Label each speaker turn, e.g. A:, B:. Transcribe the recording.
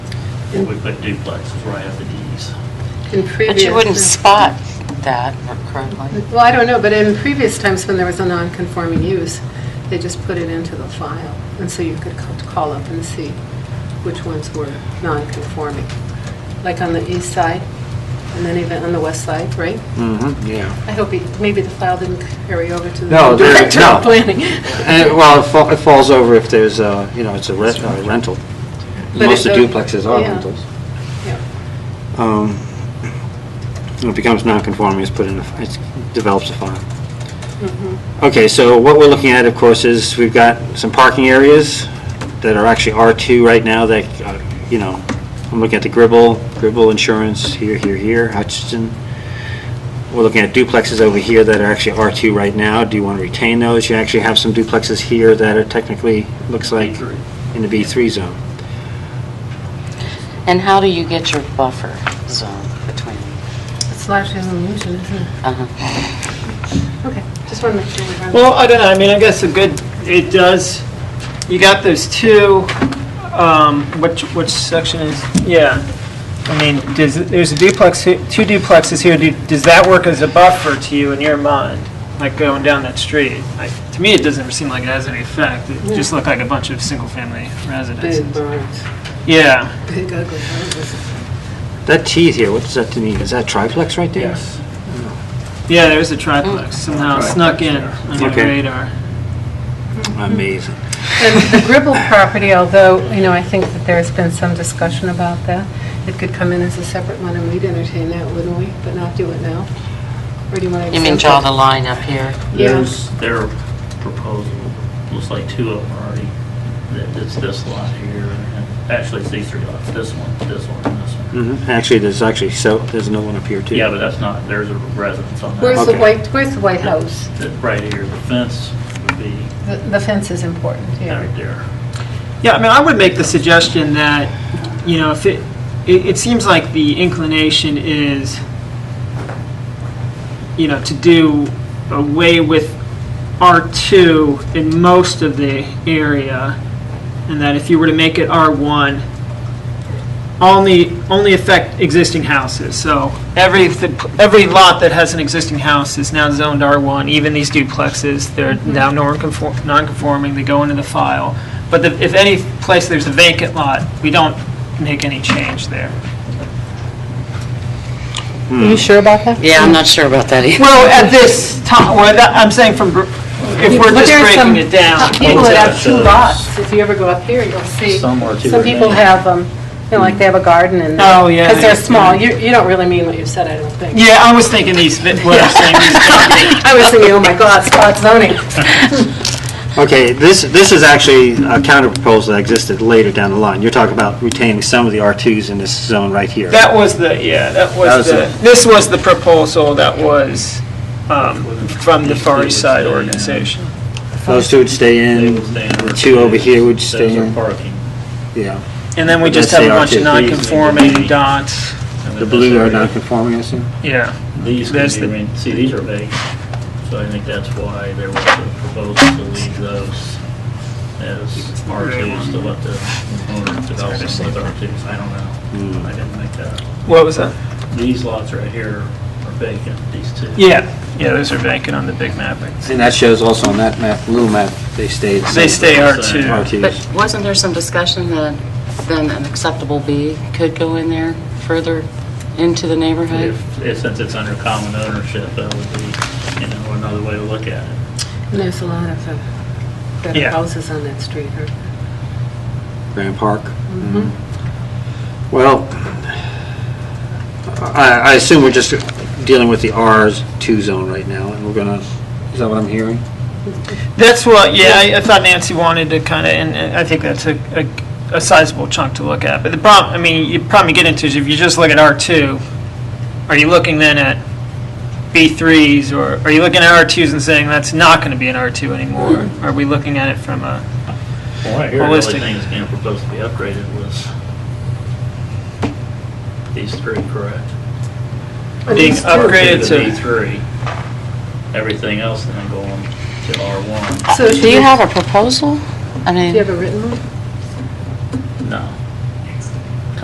A: and we put duplexes right after these.
B: In previous.
C: But you wouldn't spot that currently.
B: Well, I don't know, but in previous times when there was a non-conforming use, they just put it into the file, and so you could ca- call up and see which ones were non-conforming. Like on the east side, and then even on the west side, right?
D: Mm-hmm, yeah.
B: I hope, he- maybe the file didn't carry over to the
D: No, there-
B: director of
D: no.
B: planning.
D: And, it- well, it fa- it falls over if there's, uh, you know, it's a re- uh, rental.
B: But
D: Most
B: it
D: of
B: don't-
D: duplexes are
B: yeah.
D: rentals.
B: Yeah.
D: Um, It becomes non-conforming, it's put in, a- it develops a file. Okay, so what we're looking at, of course, is we've got some parking areas that are actually R2 right now that, uh, you know, I'm looking at the Gribble, Gribble Insurance, here, here, here, Hutchinson. We're looking at duplexes over here that are actually R2 right now. Do you want to retain those? You actually have some duplexes here that are technically, looks like,
A: B3.
D: in the B3 zone.
C: And how do you get your buffer zone between?
B: It's largely an illusion, isn't it?
C: uh-huh.
B: Okay, just want to make sure we have.
E: Well, I don't know, I mean, I guess a good, it does, you got those two, um, which, which section is, yeah. I mean, does, there's a duplex, he- two duplexes here, Do- does that work as a buffer to you in your mind? Like going down that street? Like, To me, it doesn't ever seem like it has any effect, it just looked like a bunch of single-family
B: Big
E: residences.
B: barns,
E: Yeah,
B: big ugly houses.
D: That T here, what does that mean? Is that triplex right there?
E: yeah, there's a triplex, somehow snuck in on your
D: Okay.
E: radar.
D: Amazing.
B: And the Gribble property, although, you know, I think that there's been some discussion about that, it could come in as a separate one, and we'd entertain that, wouldn't we? But not do it now? Or do you want to?
C: You mean draw the line up here?
B: Yeah,
A: There's their proposal, looks like two of them already, that it's this lot here, and actually it's these three lots, this one, this one, and this one.
D: Mhm. Actually, there's actually, so, there's no one up here, too.
A: Yeah, but that's not, there's a residence on that.
B: where's the
D: Okay.
B: white, where's the White House?
A: That Right here, the fence would be
B: The the fence is important, yeah.
A: right there.
E: Yeah, I mean, I would make the suggestion that, you know, if it, it, it seems like the inclination is, you know, to do away with R2 in most of the area, and that if you were to make it R1, only, only affect existing houses. So every, every lot that has an existing house is now zoned R1, even these duplexes, they're now non-conform- non-conforming, they go into the file. But the- if any place there's a vacant lot, we don't make any change there.
B: Are
A: Hmm.
B: you sure about that?
C: Yeah, I'm not sure about that either.
E: Well, at this time, well, that- I'm saying from, br- if we're
B: But
E: just
B: there are some
E: breaking it down.
B: People that have two
A: Those-
B: lots, if you ever go up here, you'll see.
A: Some are two
B: Some people
A: remaining.
B: have, um, you know, like they have a garden and.
E: Oh, yeah,
B: Because
E: yeah.
B: they're small. You, you don't really mean what you said, I don't think.
E: Yeah, I was thinking these, vi- what I'm saying is
B: I was thinking, oh my God, spot zoning.
D: Okay, this, this is actually a counterproposal that existed later down the line. You're talking about retaining some of the R2s in this zone right here.
E: That was the, yeah, that
D: That
E: was
D: was
E: the,
D: it.
E: this was the proposal that was um, from the Far East Side organization.
D: Those two would stay
A: They
D: in,
A: would stay in
D: the
A: our-
D: two over here would stay
A: Those are
D: in.
A: parking.
D: Yeah.
E: And then we just
D: That's
E: have a
D: the
E: bunch of
D: RTP.
E: non-conforming dots,
A: And
D: The
A: then
D: blue
A: this
D: are
A: area-
D: non-conforming, I assume?
E: yeah.
A: These
E: That's
A: could be,
E: the-
A: re- see, these are vacant, so I think that's why there was a proposal to leave those as R2s to let the owner develop them with R2s. I don't
E: Hmm.
A: know. I didn't make that. up.
E: What was that?
A: These lots right here are vacant, these two.
E: Yeah, yeah, those are vacant on the big mapping.
D: And that shows also on that map, blue map, they stayed.
E: They stay R2.
C: But
D: R2s.
C: wasn't there some discussion that then an acceptable B could go in there further into the neighborhood?
A: If, if- since it's under common ownership, that would be, you know, another way to look at it.
B: There's a lot of uh, better
E: Yeah.
B: houses on that street, huh?
D: Grand Park. Mm-hmm. Well, I, I assume we're just dealing with the R2 zone right now, and we're gonna, is that what I'm hearing?
E: That's what, yeah, I- I thought Nancy wanted to kind of, and and I think that's a, a- a sizable chunk to look at. But the problem, I mean, you probably get into is if you just look at R2, are you looking then at B3s or are you looking at R2s and saying that's not going to be an R2 anymore? Are we looking at it from a,
A: Well, right here, the only
E: Holistic.
A: thing that's being proposed to be upgraded was these three, correct?
E: being upgraded
A: To
E: to?
A: B3, everything else then going to R1.
B: So should
C: Do
B: we-
C: you have a proposal? I
B: Do you
C: mean,
B: have a written one?
A: No.